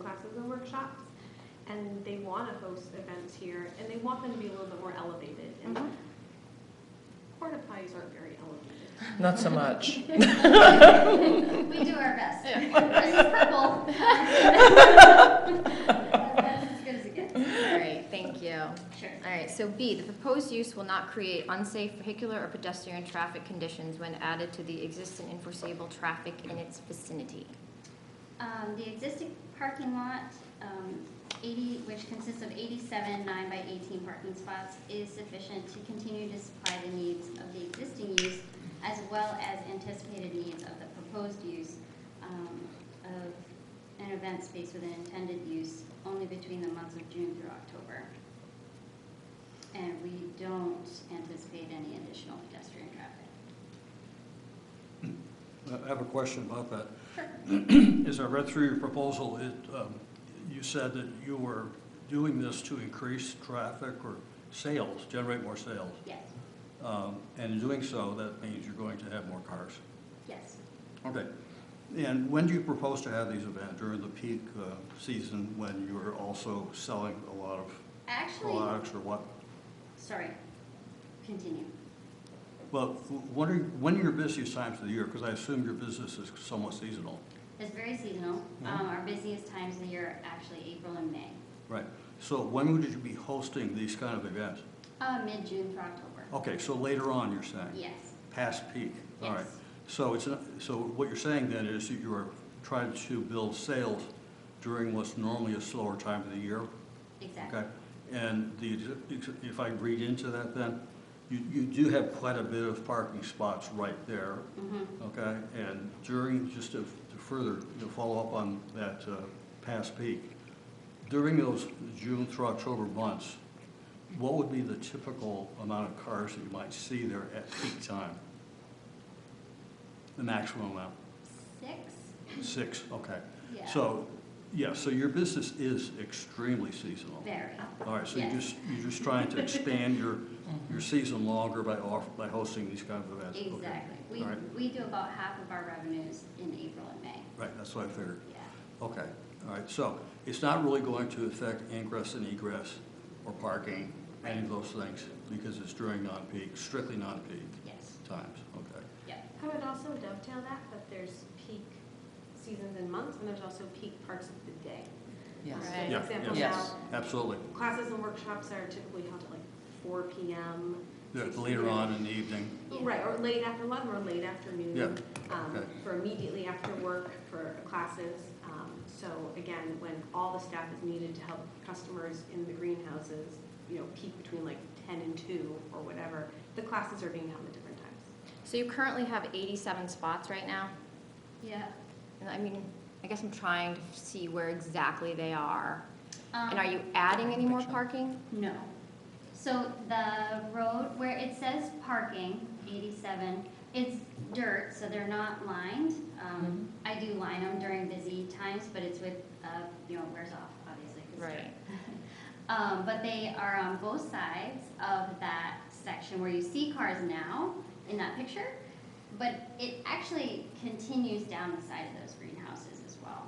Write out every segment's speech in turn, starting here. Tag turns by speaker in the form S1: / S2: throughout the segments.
S1: classes and workshops, and they want to host events here, and they want them to be a little bit more elevated. And
S2: Mm-hmm.
S1: porta potties aren't very elevated.
S2: Not so much.
S3: We do our best. This is purple. That's as good as it gets.
S4: All right, thank you. All
S3: Sure.
S4: right, so B, the proposed use will not create unsafe vehicular or pedestrian traffic conditions when added to the existing and foreseeable traffic in its vicinity.
S3: Um, the existing parking lot, um, eighty, which consists of eighty-seven nine by eighteen parking spots, is sufficient to continue to supply the needs of the existing use as well as anticipated needs of the proposed use, um, of an event space with an intended use only between the months of June through October. And we don't anticipate any additional pedestrian traffic.
S5: I have a question about that. As I read through your proposal, it, um, you said that you were doing this to increase traffic or sales, generate more sales.
S3: Yes,
S5: Um, And in doing so, that means you're going to have more cars.
S3: yes.
S5: Okay. And when do you propose to have these events? During the peak uh, season when you're also selling a lot of
S3: Actually,
S5: products or what?
S3: sorry, continue.
S5: Well, what are, when are your busiest times of the year? Because I assume your business is somewhat seasonal.
S3: It's very seasonal.
S5: Mm-hmm.
S3: Um, our busiest times of the year are actually April and May,
S5: Right. So when would you be hosting these kind of events?
S3: uh, mid-June through October.
S5: Okay, so later on, you're saying?
S3: Yes,
S5: Past peak? All right.
S3: Yes.
S5: So it's, not- so what you're saying then is that you are trying to build sales during what's normally a slower time of the year?
S3: exactly.
S5: Okay? And the, if I read into that then, you, you do have quite a bit of parking spots right there,
S3: Mhm.
S5: okay? And during, just to to further, to follow up on that uh, past peak, during those June through October months, what would be the typical amount of cars that you might see there at peak time? The maximum amount?
S3: Six,
S5: Six, okay.
S3: yeah.
S5: So, yeah, so your business is extremely seasonal.
S3: Very,
S5: All right, so you're
S3: Yes.
S5: just, you're just trying to expand your, your season longer by off, by hosting these kind of events? Okay.
S3: exactly. We,
S5: All right,
S3: we do about half of our revenues in April and May,
S5: right, that's what I figured.
S3: yeah.
S5: Okay, all right, so it's not really going to affect ingress and egress or parking, any of those things, because it's during non-peak, strictly non-peak
S3: Yes,
S5: times, okay?
S3: yep,
S1: I would also dovetail that, that there's peak seasons and months, and there's also peak parts of the day.
S2: Yes.
S1: So,
S5: Yeah,
S1: For example,
S2: yeah.
S1: now,
S2: Yes.
S5: Absolutely.
S1: classes and workshops are typically held at like four PM.
S5: Yeah,
S1: 6
S5: Later
S1: p.m.
S5: on in the evening,
S1: Right, or late after lunch, or late afternoon.
S5: Yeah,
S1: um,
S5: okay.
S1: For immediately after work, for classes. Um, So again, when all the staff is needed to help customers in the greenhouses, you know, peak between like ten and two or whatever, the classes are being held at different times.
S4: So you currently have 87 spots right now?
S3: yeah.
S4: And I mean, I guess I'm trying to see where exactly they are. And are
S3: Um,
S4: you adding any more parking?
S3: No. So the road where it says parking, eighty-seven, it's dirt, so they're not lined. Um, I do line them during busy times, but it's with, uh, you know, it wears off, obviously, 'cause it's dirt.
S4: Right.
S3: Um, but they are on both sides of that section where you see cars now in that picture. But it actually continues down the side of those greenhouses as well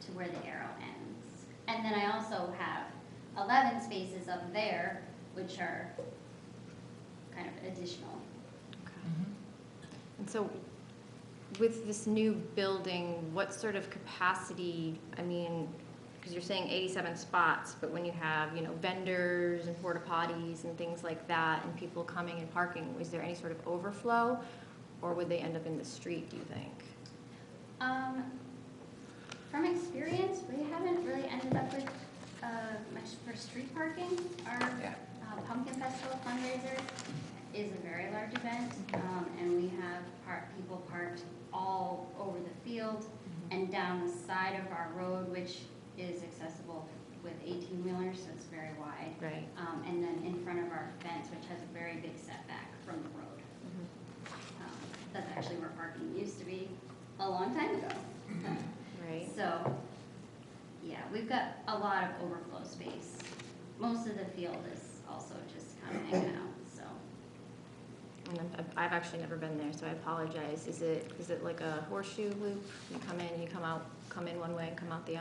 S3: to where the arrow ends. And then I also have eleven spaces up there, which are kind of additional.
S4: And so with this new building, what sort of capacity, I mean, because you're saying 87 spots, but when you have, you know, vendors and porta potties and things like that and people coming and parking, is there any sort of overflow? Or would they end up in the street, do you think?
S3: Um, from experience, we haven't really ended up with, uh, much for street parking. Our
S2: Yeah.
S3: uh, Pumpkin Festival fundraiser is a very large event, um, and we have par people parked all over the field and down the side of our road, which is accessible with eighteen-wheelers, so it's very wide.
S4: Right.
S3: Um, and then in front of our fence, which has a very big setback from the road. Um, That's actually where parking used to be a long time ago.
S4: Right?
S3: So, yeah, we've got a lot of overflow space. Most of the field is also just kind of hanging out, so.
S4: And I've- I've- I've actually never been there, so I apologize. Is it, is it like a horseshoe loop? You come in, you come out, come in one way and come out the other?